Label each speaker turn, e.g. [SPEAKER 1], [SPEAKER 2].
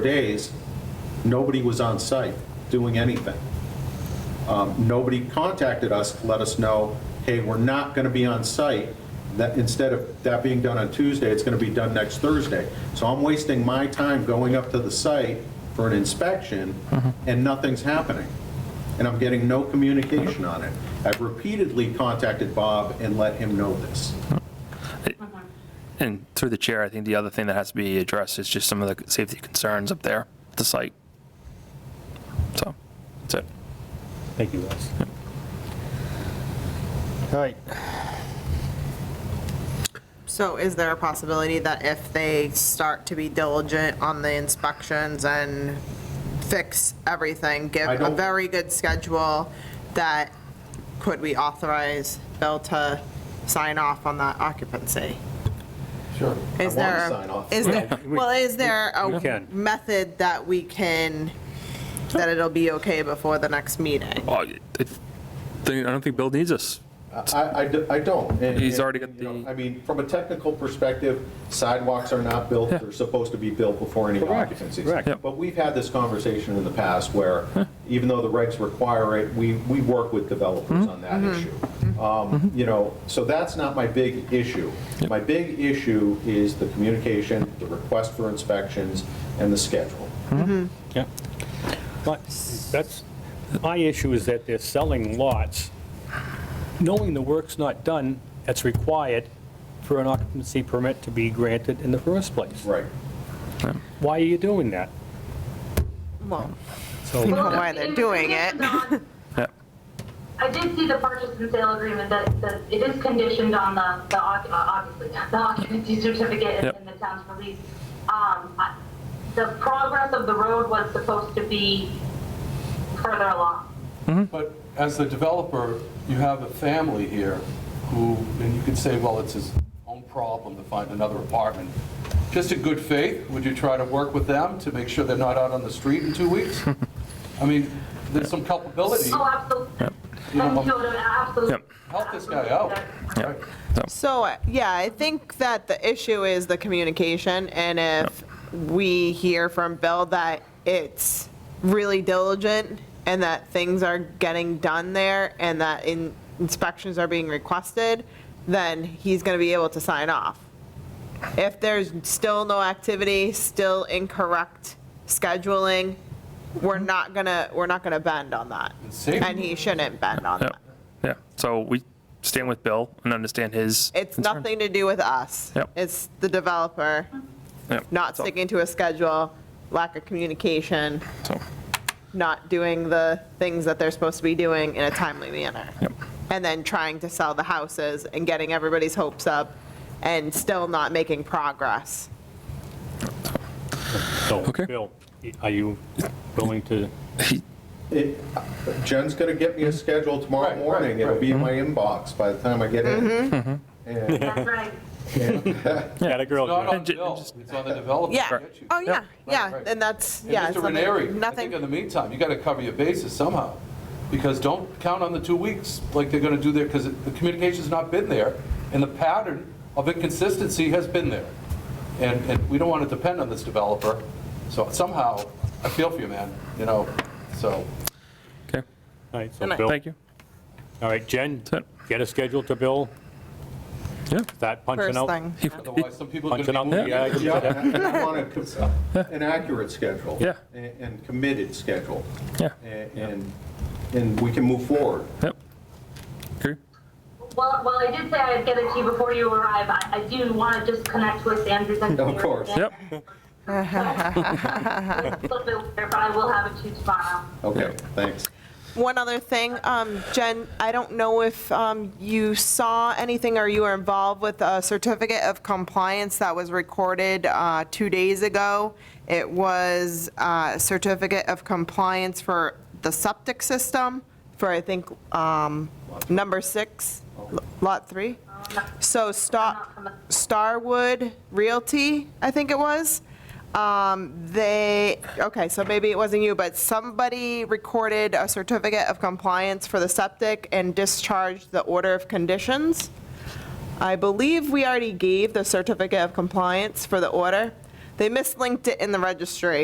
[SPEAKER 1] days, nobody was on site doing anything. Um, Nobody contacted us to let us know, hey, we're not going to be on site, that instead of that being done on Tuesday, it's going to be done next Thursday. So I'm wasting my time going up to the site for an inspection, and nothing's happening, and I'm getting no communication on it. I've repeatedly contacted Bob and let him know this.
[SPEAKER 2] And through the chair, I think the other thing that has to be addressed is just some of the safety concerns up there, at the site. So, that's it.
[SPEAKER 3] Thank you, guys.
[SPEAKER 4] All right,
[SPEAKER 5] So is there a possibility that if they start to be diligent on the inspections and fix everything, give
[SPEAKER 1] I
[SPEAKER 5] a
[SPEAKER 1] don't-
[SPEAKER 5] very good schedule, that could we authorize Bill to sign off on that occupancy?
[SPEAKER 1] Sure. I want
[SPEAKER 5] Is there,
[SPEAKER 1] to sign off.
[SPEAKER 5] is there,
[SPEAKER 3] we-
[SPEAKER 5] well, is there
[SPEAKER 3] we
[SPEAKER 5] a
[SPEAKER 3] can.
[SPEAKER 5] method that we can, that it'll be okay before the next meeting?
[SPEAKER 2] Well, I I think- I don't think Bill needs us.
[SPEAKER 1] I, I d- I don't. and-
[SPEAKER 2] He's
[SPEAKER 1] and,
[SPEAKER 2] already got
[SPEAKER 1] you know,
[SPEAKER 2] the-
[SPEAKER 1] I mean, from a technical perspective, sidewalks are not built,
[SPEAKER 2] Yeah.
[SPEAKER 1] they're supposed to be built before any
[SPEAKER 3] Correct,
[SPEAKER 1] occupancies.
[SPEAKER 3] correct. Yep.
[SPEAKER 1] But we've had this conversation in the past where, even though the regs require it, we, we work with
[SPEAKER 2] Mm-hmm.
[SPEAKER 1] developers on that
[SPEAKER 6] Mm-hmm.
[SPEAKER 1] issue. Um, You know, so that's not my big issue. My big issue is the communication, the request for inspections, and the schedule.
[SPEAKER 3] Yeah. But that's, my issue is that they're selling lots, knowing the work's not done that's required for an occupancy permit to be granted in the first place.
[SPEAKER 2] Mm-hmm.
[SPEAKER 1] Right.
[SPEAKER 3] Why are you doing that?
[SPEAKER 5] Well,
[SPEAKER 3] So,
[SPEAKER 5] We don't know why they're doing it.
[SPEAKER 2] Yeah.
[SPEAKER 7] I did see the purchase and sale agreement that, that it is conditioned on the, the, oc- uh, obviously, the occupancy certificate and-
[SPEAKER 2] Yep.
[SPEAKER 7] and the town's release. Um, I- The progress of the road was supposed to be further along.
[SPEAKER 6] But as the developer, you have a family here who, and you could say, well, it's his own problem to find another apartment. Just in good faith, would you try to work with them to make sure they're not out on the street in two weeks? I mean, there's some culpability.
[SPEAKER 7] Oh, absolutely.
[SPEAKER 6] Yeah.
[SPEAKER 7] Absolutely.
[SPEAKER 2] Yep.
[SPEAKER 6] Help this guy out. Right.
[SPEAKER 5] So, uh, yeah, I think that the issue is the communication, and if we hear from Bill that it's really diligent and that things are getting done there and that in- inspections are being requested, then he's gonna be able to sign off. If there's still no activity, still incorrect scheduling, we're not gonna, we're not gonna bend on that.
[SPEAKER 6] Safety.
[SPEAKER 5] And he shouldn't bend on
[SPEAKER 2] Yeah.
[SPEAKER 5] that.
[SPEAKER 2] Yeah. So we stand with Bill and understand his.
[SPEAKER 5] It's
[SPEAKER 2] concerns.
[SPEAKER 5] nothing to do with us.
[SPEAKER 2] Yep.
[SPEAKER 5] It's the developer
[SPEAKER 2] Yeah.
[SPEAKER 5] not
[SPEAKER 2] So-
[SPEAKER 5] sticking to a schedule, lack of communication,
[SPEAKER 2] So,
[SPEAKER 5] not doing the things that they're supposed to be doing in a timely manner.
[SPEAKER 2] Yep.
[SPEAKER 5] And then trying to sell the houses and getting everybody's hopes up and still not making progress.
[SPEAKER 3] so,
[SPEAKER 2] Okay.
[SPEAKER 3] Bill, are you willing to,
[SPEAKER 1] It- Jen's going to get me a schedule tomorrow
[SPEAKER 6] Right, right,
[SPEAKER 1] morning, it'll
[SPEAKER 6] right. Mm-hmm.
[SPEAKER 1] be in my
[SPEAKER 2] Mm-hmm.
[SPEAKER 1] inbox by the time I get in. And-
[SPEAKER 7] That's right.
[SPEAKER 3] yeah, the
[SPEAKER 6] It's not
[SPEAKER 3] girl,
[SPEAKER 6] on Bill, it's on the developer.
[SPEAKER 5] Yeah.
[SPEAKER 6] Get you.
[SPEAKER 5] Oh, yeah, yeah.
[SPEAKER 6] right.
[SPEAKER 5] And that's,
[SPEAKER 6] And
[SPEAKER 5] yeah.
[SPEAKER 6] Mr.
[SPEAKER 5] it's nothing-
[SPEAKER 6] Ranieri, I think uh, in
[SPEAKER 5] Nothing,
[SPEAKER 6] the meantime, you got to cover your bases somehow, because don't count on the two weeks like they're going to do there, because the communication's not been there, and the pattern of inconsistency has been there. And, and we don't want to depend on this developer, so somehow, I feel for you, man, you know, so.
[SPEAKER 2] okay.
[SPEAKER 3] all right,
[SPEAKER 5] And
[SPEAKER 3] so
[SPEAKER 5] I-
[SPEAKER 3] Bill,
[SPEAKER 2] Thank you.
[SPEAKER 3] all right, Jen,
[SPEAKER 2] it.
[SPEAKER 3] get a schedule to Bill,
[SPEAKER 2] Yeah.
[SPEAKER 3] start punching
[SPEAKER 5] first
[SPEAKER 3] out.
[SPEAKER 5] thing.
[SPEAKER 6] Otherwise, some people are going to
[SPEAKER 3] Punching
[SPEAKER 6] be
[SPEAKER 3] out
[SPEAKER 6] moving.
[SPEAKER 3] the uh,
[SPEAKER 6] in.
[SPEAKER 3] items.
[SPEAKER 1] Yeah, and I want a- an accurate schedule.
[SPEAKER 2] Yeah.
[SPEAKER 1] And and committed schedule.
[SPEAKER 2] Yeah.
[SPEAKER 1] And- And, and we can move forward.
[SPEAKER 2] Yep. Agree.
[SPEAKER 7] Well, well, I did say I'd get it to you before you arrive. I, I do want to just connect with Andrews and.
[SPEAKER 1] Of course.
[SPEAKER 2] Yep.
[SPEAKER 7] It's a little bit later, But I will have it to you tomorrow.
[SPEAKER 1] Okay, thanks.
[SPEAKER 5] One other thing, um, Jen, I don't know if um, you saw anything or you were involved with a certificate of compliance that was recorded uh, two days ago. It was a certificate of compliance for the septic system for, I think, um, number six, lot three. So Star, Starwood Realty, I think it was. Um, They, okay, so maybe it wasn't you, but somebody recorded a certificate of compliance for the septic and discharged the order of conditions. I believe we already gave the certificate of compliance for the order. They mislinked it in the registry.